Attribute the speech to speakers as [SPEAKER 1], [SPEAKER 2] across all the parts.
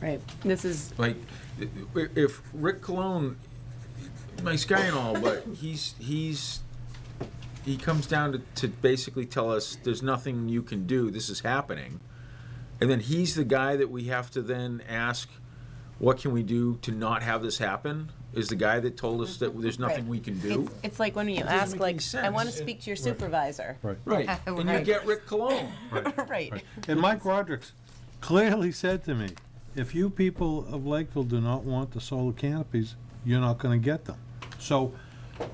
[SPEAKER 1] Right, this is,
[SPEAKER 2] Like, i- i- if Rick Cologne, nice guy and all, but he's, he's, he comes down to, to basically tell us, there's nothing you can do, this is happening. And then he's the guy that we have to then ask, what can we do to not have this happen? Is the guy that told us that there's nothing
[SPEAKER 1] Right.
[SPEAKER 2] we can do?
[SPEAKER 1] it's, it's like when you
[SPEAKER 2] doesn't
[SPEAKER 1] ask,
[SPEAKER 2] make any
[SPEAKER 1] like, I want to
[SPEAKER 2] sense.
[SPEAKER 1] speak to your supervisor.
[SPEAKER 3] Right.
[SPEAKER 2] Right, and you
[SPEAKER 1] Right.
[SPEAKER 2] get Rick Cologne.
[SPEAKER 1] Right,
[SPEAKER 3] And Mike Roderick's clearly said to me, if you people of Lakeville do not want the solar canopies, you're not gonna get them. So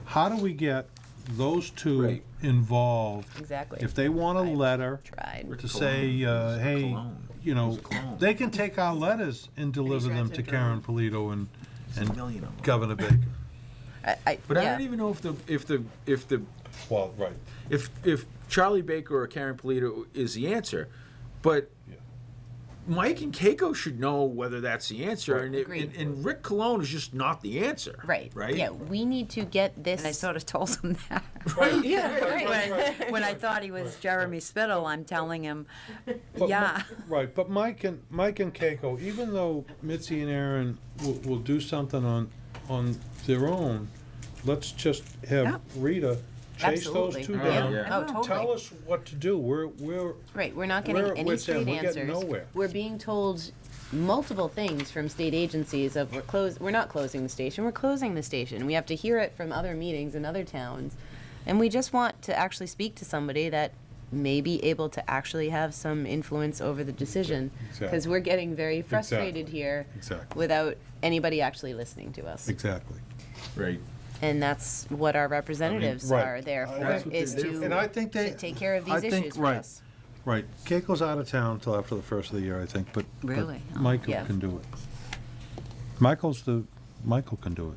[SPEAKER 3] how do we get those two
[SPEAKER 2] Right.
[SPEAKER 3] involved?
[SPEAKER 1] exactly.
[SPEAKER 3] If they want a
[SPEAKER 1] Right.
[SPEAKER 3] letter
[SPEAKER 1] Tried.
[SPEAKER 3] to say, uh,
[SPEAKER 2] He's a
[SPEAKER 3] hey,
[SPEAKER 2] clone.
[SPEAKER 3] you know,
[SPEAKER 2] He's a clone.
[SPEAKER 3] they can take our letters and deliver them
[SPEAKER 1] read
[SPEAKER 3] to
[SPEAKER 1] them.
[SPEAKER 3] Karen Polito and,
[SPEAKER 2] There's a
[SPEAKER 3] and
[SPEAKER 2] million of 'em.
[SPEAKER 3] Governor Baker.
[SPEAKER 1] I, I,
[SPEAKER 2] But I
[SPEAKER 1] yeah,
[SPEAKER 2] don't even know if the, if the, if the
[SPEAKER 3] Well, right.
[SPEAKER 2] if if Charlie Baker or Karen Polito is the answer, but
[SPEAKER 3] Yeah.
[SPEAKER 2] Mike and Keiko should know whether that's the answer, and, it,
[SPEAKER 4] Agreed.
[SPEAKER 2] and and Rick Cologne is just not the answer.
[SPEAKER 1] right.
[SPEAKER 2] Right.
[SPEAKER 1] Yeah, we need to get this.
[SPEAKER 4] And I sort of told him that.
[SPEAKER 2] Right.
[SPEAKER 1] Yeah, right.
[SPEAKER 4] When- When I thought he was Jeremy Spittle, I'm telling him,
[SPEAKER 3] But Mi-
[SPEAKER 4] yeah,
[SPEAKER 3] Right, but Mike and, Mike and Keiko, even though Mitzi and Aaron will, will do something on, on their own, let's just
[SPEAKER 4] Yeah.
[SPEAKER 3] have Rita chase those
[SPEAKER 1] Absolutely.
[SPEAKER 3] two
[SPEAKER 2] Oh,
[SPEAKER 3] down.
[SPEAKER 2] yeah.
[SPEAKER 1] Oh, totally.
[SPEAKER 3] Tell us what to do, we're, we're,
[SPEAKER 1] Right, we're not
[SPEAKER 3] We're-
[SPEAKER 1] getting any
[SPEAKER 3] we're saying
[SPEAKER 1] straight
[SPEAKER 3] we're getting
[SPEAKER 1] answers.
[SPEAKER 3] nowhere.
[SPEAKER 1] We're being told multiple things from state agencies of we're close, we're not closing the station, we're closing the station. We have to hear it from other meetings in other towns. And we just want to actually speak to somebody that may be able to actually have some influence over the decision. Because
[SPEAKER 3] Exactly.
[SPEAKER 1] we're getting very frustrated
[SPEAKER 3] Exactly.
[SPEAKER 1] here
[SPEAKER 3] Exactly.
[SPEAKER 1] without anybody actually listening to us.
[SPEAKER 3] exactly.
[SPEAKER 2] Right.
[SPEAKER 1] And that's what our representatives
[SPEAKER 3] right.
[SPEAKER 1] are there
[SPEAKER 3] Uh,
[SPEAKER 1] for,
[SPEAKER 3] that's what
[SPEAKER 1] is
[SPEAKER 2] they're there
[SPEAKER 1] to
[SPEAKER 2] for.
[SPEAKER 3] And I think they.
[SPEAKER 1] to take care of these
[SPEAKER 3] I think-
[SPEAKER 1] issues for
[SPEAKER 3] right,
[SPEAKER 1] us.
[SPEAKER 3] Right, Keiko's out of town until after the first of the year, I think, but. but
[SPEAKER 4] Really? Oh.
[SPEAKER 3] Michael
[SPEAKER 1] Yeah.
[SPEAKER 3] can do it. Michael's the, Michael can do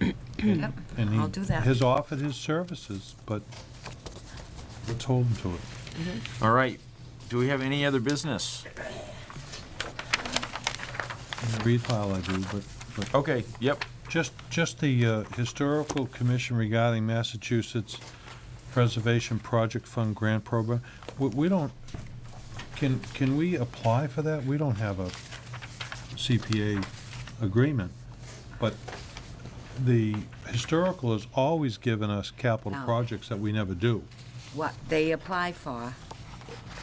[SPEAKER 3] it. And- and he
[SPEAKER 4] I'll do that.
[SPEAKER 3] Has offered his services, but let's hold him to it.
[SPEAKER 2] All right. Do we have any other business?
[SPEAKER 3] Read file I do, but, but
[SPEAKER 2] Okay. Yep.
[SPEAKER 3] Just, just the uh, Historical Commission regarding Massachusetts Preservation Project Fund Grant Program, we, we don't, can, can we apply for that? We don't have a CPA agreement, but the historical has always given us capital
[SPEAKER 4] No.
[SPEAKER 3] projects that we never do.
[SPEAKER 4] what they apply for.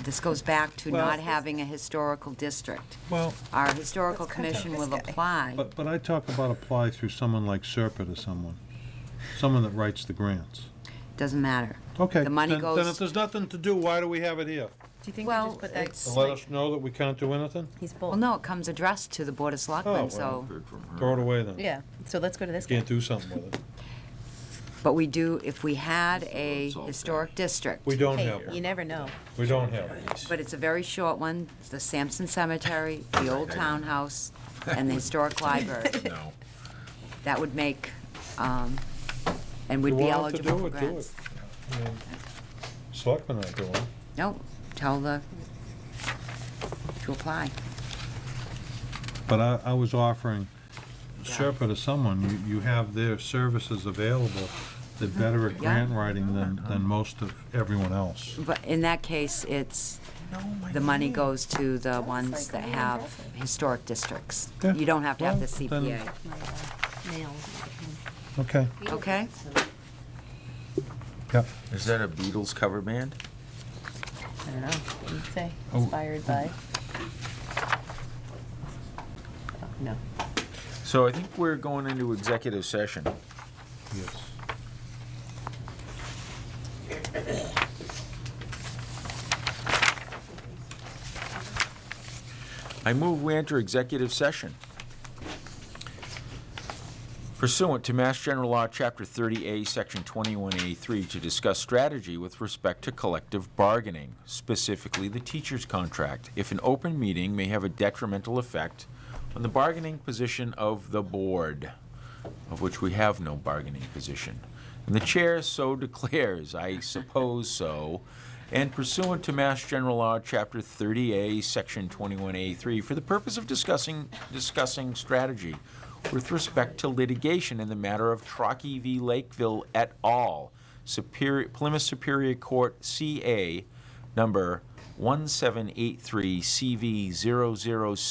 [SPEAKER 4] This goes back to
[SPEAKER 3] Well-
[SPEAKER 4] not having a historical district.
[SPEAKER 3] Well,
[SPEAKER 4] Our historical commission will apply.
[SPEAKER 3] but, but I talk about apply through someone like Serpent or someone, someone that writes the grants.
[SPEAKER 4] Doesn't matter.
[SPEAKER 3] Okay.
[SPEAKER 4] The money
[SPEAKER 3] then- Then if
[SPEAKER 4] goes.
[SPEAKER 3] there's nothing to do, why do we have it here?
[SPEAKER 1] Do you think
[SPEAKER 4] we Well, just put that- it's-
[SPEAKER 3] To let us know that we can't do anything?
[SPEAKER 1] He's bold.
[SPEAKER 4] Well, no, it comes addressed to the board of
[SPEAKER 3] Oh, well.
[SPEAKER 4] selectmen, so.
[SPEAKER 3] Throw it away then.
[SPEAKER 1] Yeah, so let's go to this guy.
[SPEAKER 3] Can't do something with it.
[SPEAKER 4] But we do, if we had a
[SPEAKER 2] Salt.
[SPEAKER 4] historic district,
[SPEAKER 3] We don't
[SPEAKER 1] Hey,
[SPEAKER 3] have
[SPEAKER 1] you
[SPEAKER 3] it.
[SPEAKER 1] never know.
[SPEAKER 3] We don't have it.
[SPEAKER 4] but it's a very short one, the Sampson Cemetery, the old townhouse, and the historic library.
[SPEAKER 2] No.
[SPEAKER 4] that would make, um, and would
[SPEAKER 3] You
[SPEAKER 4] be
[SPEAKER 3] want it to
[SPEAKER 4] eligible
[SPEAKER 3] do
[SPEAKER 4] for
[SPEAKER 3] it, do
[SPEAKER 4] grants.
[SPEAKER 3] it. I mean, Selectmen aren't doing it.
[SPEAKER 4] No, tell the, to apply.
[SPEAKER 3] But I, I was offering Sherpa to someone, you, you have their services available. They're better at
[SPEAKER 4] Yeah.
[SPEAKER 3] grant writing than, than most of everyone else.
[SPEAKER 4] But in that case, it's, the money goes to the ones that have historic districts.
[SPEAKER 3] Yeah.
[SPEAKER 4] You don't have to have the
[SPEAKER 3] Well, then-
[SPEAKER 4] CPA,
[SPEAKER 3] Okay,
[SPEAKER 4] okay?
[SPEAKER 3] yep.
[SPEAKER 2] Is that a Beatles cover band?
[SPEAKER 1] I don't know. You'd say
[SPEAKER 3] Oh.
[SPEAKER 1] inspired by. Oh, No.
[SPEAKER 2] So I think we're going into executive session.
[SPEAKER 3] Yes.
[SPEAKER 2] I move we enter executive session pursuant to Mass General Law, Chapter 30A, Section 21A3, to discuss strategy with respect to collective bargaining, specifically the teacher's contract, if an open meeting may have a detrimental effect on the bargaining position of the board, of which we have no bargaining position. And the chair so declares, I suppose so, and pursuant to Mass General Law, Chapter 30A, Section 21A3, for the purpose of discussing, discussing strategy with respect to litigation in the matter of Trockey v. Lakeville et al., Superior, Plymouth Superior Court, CA, number 1783, CV 006.